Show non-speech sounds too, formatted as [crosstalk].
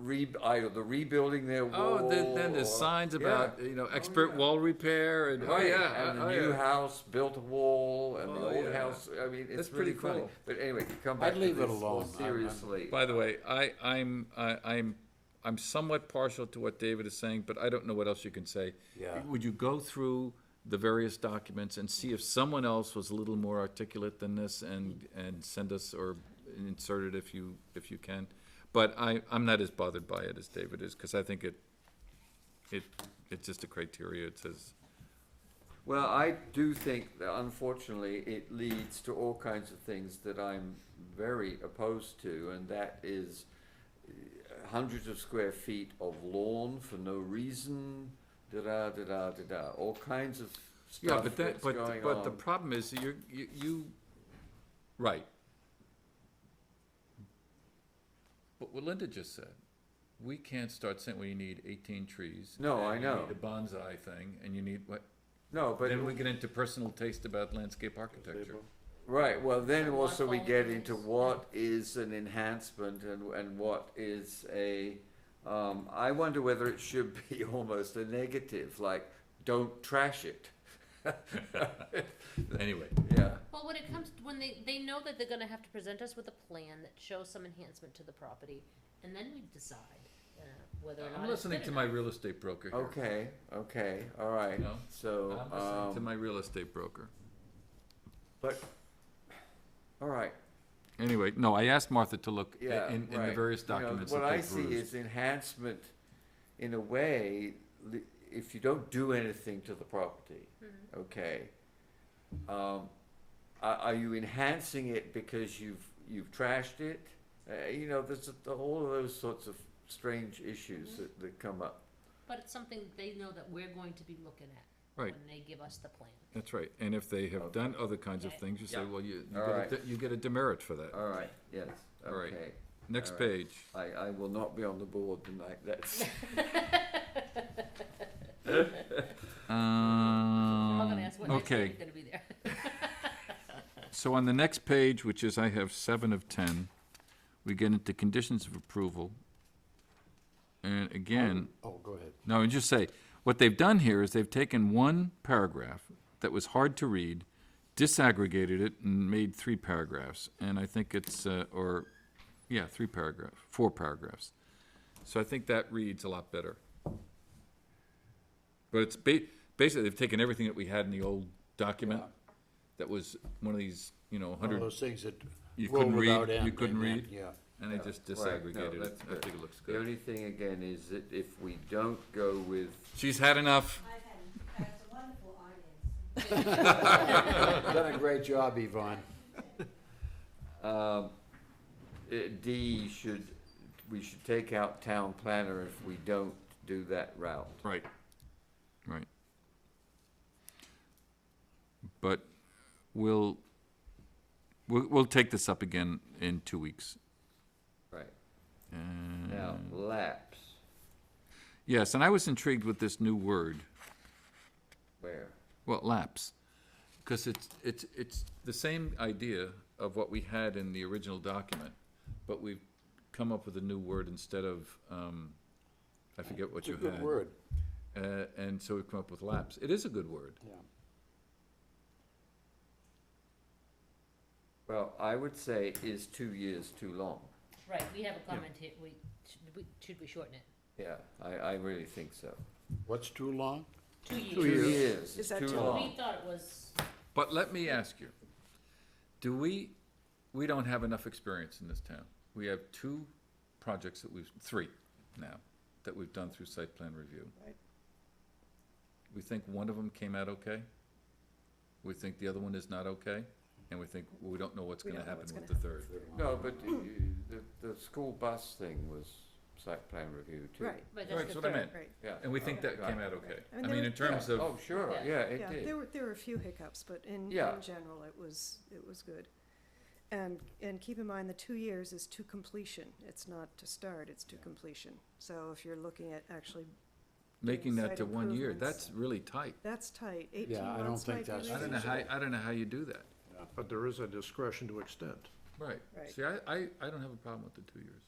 re, I, the rebuilding their wall. Oh, then, then there's or- signs yeah. about you know expert wall repair and oh Right, yeah, and oh, the yeah. new house built a wall, and Oh, the old yeah. house. I mean, it's That's really pretty funny. cool. But anyway, to come back. I'd to leave this it more alone. I'm- I'm- Seriously. By the way, I, I'm, I, I'm, I'm somewhat partial to what David is saying, but I don't know what else you can say. Yeah. Would you go through the various documents and see if someone else was a little more articulate than this and, and send us or insert it if you, if you can? But I, I'm not as bothered by it as David is, because I think it, it, it's just a criteria, it says, Well, I do think that unfortunately it leads to all kinds of things that I'm very opposed to, and that is uh, hundreds of square feet of lawn for no reason, da da da da da da. All kinds of Yeah, stuff but that's that, but, going but the on. problem is, that you're, you, you, right. But what Linda just said, we can't start saying, well, you need eighteen trees. No, and I know. You need a bonsai thing, and you need, what, no, but then we get into personal taste about landscape architecture. Right, well, then So what also we get qualities? into what is an enhancement and, and what is a, um, I wonder whether it should [laughs] be almost a negative, like, don't trash it. [laughs] Anyway, Yeah, Well, when it comes, when they, they know that they're gonna have to present us with a plan that shows some enhancement to the property, and then we decide, uh, whether or not I'm it's listening good to enough. my real estate broker here. okay, okay, all right, No, so, I'm listening to um, my real estate broker. but, all right, Anyway, no, I asked Martha to look in, yeah, in the right. various You know, documents that they What I see perused. is enhancement, in a way, li- if you don't do anything to the property, okay? Um, are, are you enhancing it because you've, you've trashed it? Uh, you know, there's a- all of those sorts of strange issues that, that come up. But it's something they know that we're going to be looking at. Right. When they give us the plan. That's right, and if they have done other kinds of Okay. things, you say, Yeah. well, you, you All get a, right. de- you get a demerit for that. All right, yes, All right. okay. Next all right. page, I, I will not be on the board tonight, that's, Um, Um, I'm gonna ask what next okay. week you're gonna be there. [laughs] so on the next page, which is I have seven of ten, we get into conditions of approval. And again, Oh, go ahead. No, and just say, what they've done here is they've taken one paragraph that was hard to read, disaggregated it, and made three paragraphs. And I think it's, uh, or, yeah, three paragraph, four paragraphs. So I think that reads a lot better. But it's ba- basically, they've taken everything that we had in the old document that was one of these, you know, One of hundred, those things that you roll couldn't without read, end. you couldn't amen, read. Yeah. And they just Right, no, disaggregated it. that's I good. think it looks the good. only thing again is that if we don't go with She's had enough. I've had, that's a wonderful audience. Done a great job, Yvonne. Um, eh, D should, we should take out town planner if we don't do that route. Right. Right. But we'll, we'll, we'll take this up again in two weeks. Right, And- now, lapse, Yes, and I was intrigued with this new word, where? well, lapse. Because it's, it's, it's the same idea of what we had in the original document, but we've come up with a new word instead of, um, I forget what It's a you had. good word, Uh, and so we've come up with lapse. It is a good word. yeah. Well, I would say is two years too long. Right, we have a comment here, we, should we, should we shorten it? Yeah, I, I really think so. What's too long? Two years. Two years Is is that too too We long. thought it was, But let me ask you, do we, we don't have enough experience in this town. We have two projects that we've, three now, that we've done through site plan review. Right. We think one of them came out okay, we think the other one is not okay, and we think, we don't know what's We gonna don't know happen what's with the gonna third. No, but eh, the, the school bus thing was site plan review too. Right, right, Right, that's that's the what I third. meant, right. Yeah. and we think that Right. came out okay. I mean, I there mean, were- in terms Yeah, Oh, of, sure, Yeah. yeah, it Yeah, did. there were, there were a few hiccups, but in, in Yeah. general, it was, it was good. And, and keep in mind, the two years is to completion. It's not to start, it's to completion. So if you're looking at actually, making that site to one year, improvements. that's really tight. that's tight, eighteen Yeah, I don't months think might be that's I don't know reasonable. how, I don't know how you do that. But there is a discretion to extend. Right. Right. See, I, I, I don't have a problem with the two years.